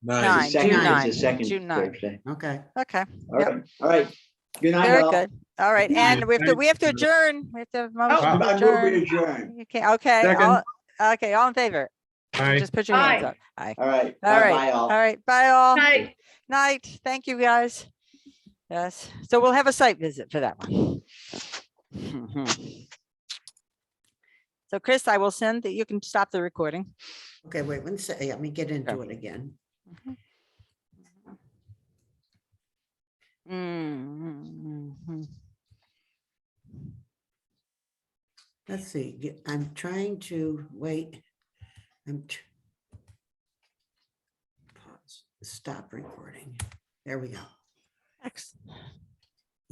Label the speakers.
Speaker 1: Nine.
Speaker 2: Second
Speaker 3: June
Speaker 2: is
Speaker 3: nine,
Speaker 2: the second
Speaker 3: June nine.
Speaker 2: Thursday.
Speaker 3: Okay.
Speaker 1: Okay,
Speaker 2: All
Speaker 1: Yep.
Speaker 2: right, all right. Good night,
Speaker 1: very
Speaker 2: all.
Speaker 1: good. All right,
Speaker 3: Good
Speaker 1: and
Speaker 3: night.
Speaker 1: we have to,
Speaker 3: Thanks.
Speaker 1: we have to adjourn. We have to have a
Speaker 2: Oh,
Speaker 1: motion to
Speaker 2: I move we
Speaker 1: adjourn.
Speaker 2: adjourn.
Speaker 1: You can't, okay,
Speaker 4: Second.
Speaker 1: all, okay, all in favor?
Speaker 4: Aye.
Speaker 1: Just put your hands
Speaker 5: Aye.
Speaker 1: up. Aye.
Speaker 2: All right.
Speaker 1: All right.
Speaker 2: Bye, all.
Speaker 1: All right, bye all.
Speaker 5: Night.
Speaker 1: Night. Thank you, guys. Yes, so we'll have a site visit for that one. Mhm. So Chris, I will send that, you can stop the recording.
Speaker 3: Okay, wait, one second. Let me get into it again.
Speaker 1: Mm, mm, mm, mm.
Speaker 3: Let's see, get- I'm trying to, wait. I'm. tr- Pause. Stop recording. There we go.
Speaker 1: Excellent.